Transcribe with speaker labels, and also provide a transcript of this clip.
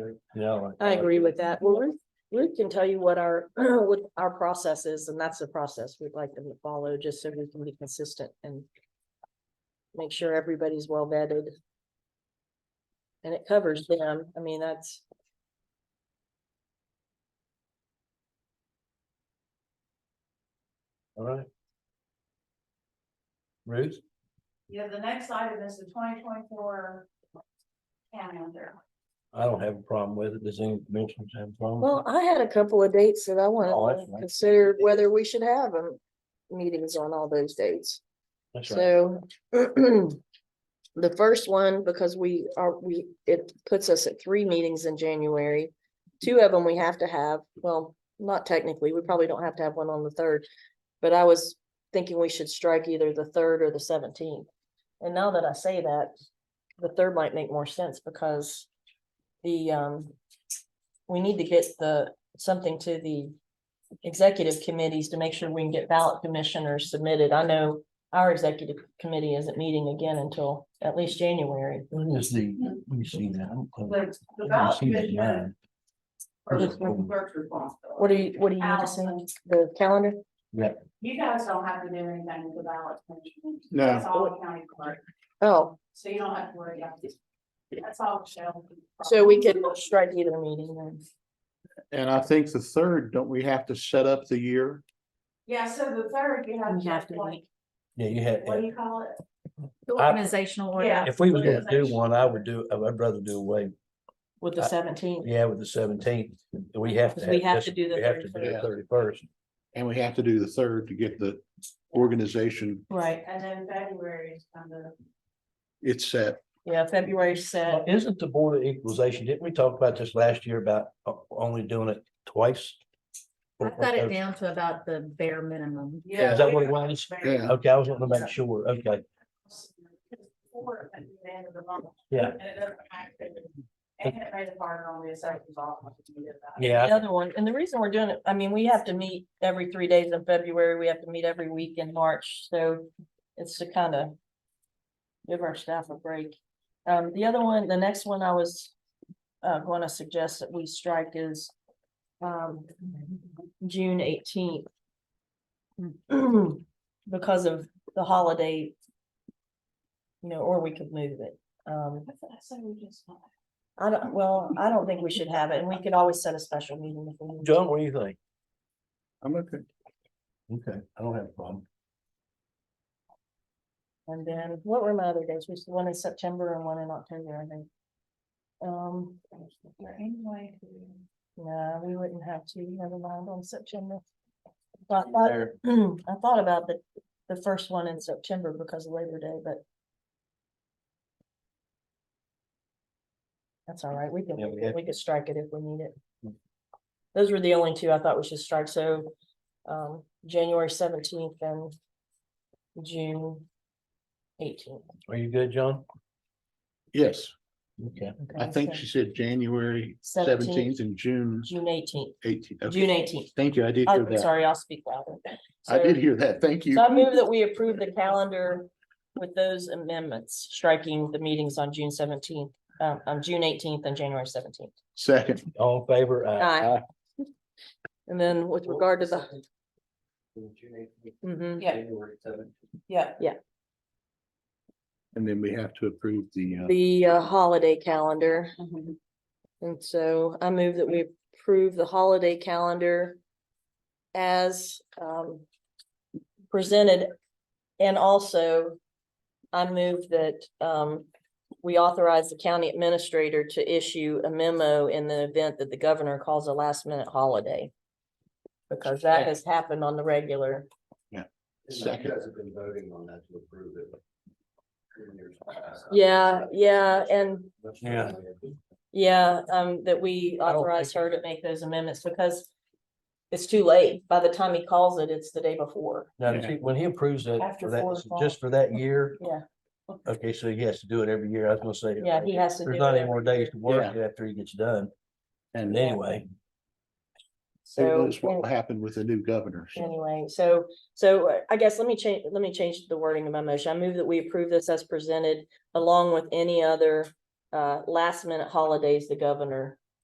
Speaker 1: group.
Speaker 2: Yeah. like
Speaker 1: I
Speaker 2: that.
Speaker 1: agree with that. Well, Ruth, Ruth can tell you what our, what our process is, and that's the process we'd like them to follow, just so we can be consistent and make sure everybody's well vetted. And it covers them. I mean, that's,
Speaker 2: All right. Ruth,
Speaker 3: Yeah, the next item is the twenty twenty-four calendar.
Speaker 2: I don't have a problem with it. Does any commissioners have a problem?
Speaker 1: well, I had a couple of dates that I
Speaker 2: Oh, that's
Speaker 1: wanted to
Speaker 2: nice.
Speaker 1: consider whether we should have um, meetings on all those dates.
Speaker 2: That's right.
Speaker 1: So the first one, because we are, we, it puts us at three meetings in January. Two of them we have to have, well, not technically, we probably don't have to have one on the third. But I was thinking we should strike either the third or the seventeenth. And now that I say that, the third might make more sense because the, um, we need to get the, something to the executive committees to make sure we can get ballot commissioners submitted. I know our executive committee isn't meeting again until at least January.
Speaker 2: When is the, let me see now. I don't think-
Speaker 3: The,
Speaker 2: I
Speaker 3: the
Speaker 2: haven't
Speaker 3: ballot
Speaker 2: seen it
Speaker 3: commissioner
Speaker 2: yet.
Speaker 3: or the clerk's responsibility.
Speaker 1: What do you, what do you need to say? The calendar?
Speaker 3: You guys don't have to do anything with the ballot commissioner.
Speaker 4: No.
Speaker 3: That's all the county clerk,
Speaker 1: Oh,
Speaker 3: so you don't have to worry about it. That's all Michelle.
Speaker 1: so we could strike either meeting then.
Speaker 4: And I think the third, don't we have to set up the year?
Speaker 3: Yeah, so the third, you have.
Speaker 1: We have to make-
Speaker 2: Yeah, you had,
Speaker 3: What do you call it?
Speaker 5: Organizational
Speaker 3: Yeah.
Speaker 5: order.
Speaker 2: if we was gonna do one, I would do, I'd rather do away,
Speaker 1: with the
Speaker 2: Uh,
Speaker 1: seventeenth.
Speaker 2: yeah, with the seventeenth. We have to.
Speaker 1: Because we have
Speaker 2: this-
Speaker 1: to do the
Speaker 2: We have to do the
Speaker 4: 31st.
Speaker 2: thirty-first.
Speaker 4: And we have to do the third to get the organization,
Speaker 1: Right,
Speaker 3: And then February is kind of.
Speaker 4: it's set.
Speaker 1: yeah, February set.
Speaker 2: Isn't the Board of Equalization, didn't we talk about this last year about o- only doing it twice?
Speaker 5: I've got it down to about the bare minimum.
Speaker 2: Is that what it was? Okay, I was gonna make sure, okay,
Speaker 3: Before at the end of the month.
Speaker 2: Yeah.
Speaker 3: And it doesn't matter. And it made it harder on the assessors office to do that.
Speaker 1: The
Speaker 2: yeah,
Speaker 1: other one, and the reason we're doing it, I mean, we have to meet every three days in February, we have to meet every week in March, so it's to kind of give our staff a break. Um, the other one, the next one I was uh, going to suggest that we strike is um, June eighteenth. Because of the holiday. You know, or we could move it. Um,
Speaker 3: I thought- I said we just-
Speaker 1: I don't, well, I don't think we should have it, and we could always set a special meeting if we need to.
Speaker 2: John, what do you think?
Speaker 4: I'm okay.
Speaker 2: Okay, I don't have a problem.
Speaker 1: And then what were my other days? We one in September and one in October, I think. Um,
Speaker 3: Anyway.
Speaker 1: no, we wouldn't have to, never mind on September. I thought, I thought about the, the first one in September because of Labor Day, but. That's all right. We
Speaker 2: Yeah, we have-
Speaker 1: could, we could strike it if we need it.
Speaker 2: Mm.
Speaker 1: Those were the only two I thought we should strike. So, um, January seventeenth and June eighteenth.
Speaker 2: Are you good, John?
Speaker 4: Yes,
Speaker 2: Okay.
Speaker 4: I think she said January seventeenth and June
Speaker 1: June eighteenth,
Speaker 4: eighteenth. Okay.
Speaker 1: June eighteenth.
Speaker 4: Thank you, I did hear
Speaker 1: I'm
Speaker 4: that.
Speaker 1: sorry, I'll speak louder.
Speaker 4: I did
Speaker 1: So-
Speaker 4: hear that, thank you.
Speaker 1: So I move that we approve the calendar with those amendments, striking the meetings on June seventeenth, um, on June eighteenth and January seventeenth.
Speaker 4: Second,
Speaker 2: All in favor?
Speaker 1: Aye. And then with regard to the, Mhm.
Speaker 3: Yeah. Yeah.
Speaker 4: and then we have to approve the, uh,
Speaker 1: the uh, holiday calendar.
Speaker 3: Mm-hmm.
Speaker 1: And so I move that we approve the holiday calendar as um presented. And also, I move that um we authorize the county administrator to issue a memo in the event that the governor calls a last minute holiday. Because that has happened on the regular.
Speaker 4: Second.
Speaker 6: You guys have been voting on that to approve it. in years past.
Speaker 1: Yeah, yeah, and
Speaker 6: That's-
Speaker 2: Yeah.
Speaker 1: Yeah, um, that we
Speaker 2: I don't
Speaker 1: authorize her to make those amendments because it's too late. By the time he calls it, it's the day before.
Speaker 2: Now, does he- when he approves it,
Speaker 1: After
Speaker 2: for that-
Speaker 1: four o'clock.
Speaker 2: just for that year?
Speaker 1: Yeah.
Speaker 2: Okay, so he has to do it every year. I was gonna say.
Speaker 1: Yeah, he has to do
Speaker 2: There's
Speaker 1: it
Speaker 2: not any
Speaker 1: every
Speaker 2: more
Speaker 1: year.
Speaker 2: days to work after he gets done.
Speaker 4: and
Speaker 2: And
Speaker 4: who
Speaker 2: anyway,
Speaker 1: So,
Speaker 4: knows what will happen with the new governor.
Speaker 1: an- anyway, so, so uh, I guess let me change, let me change the wording of my motion. I move that we approve this as presented along with any other uh, last minute holidays the governor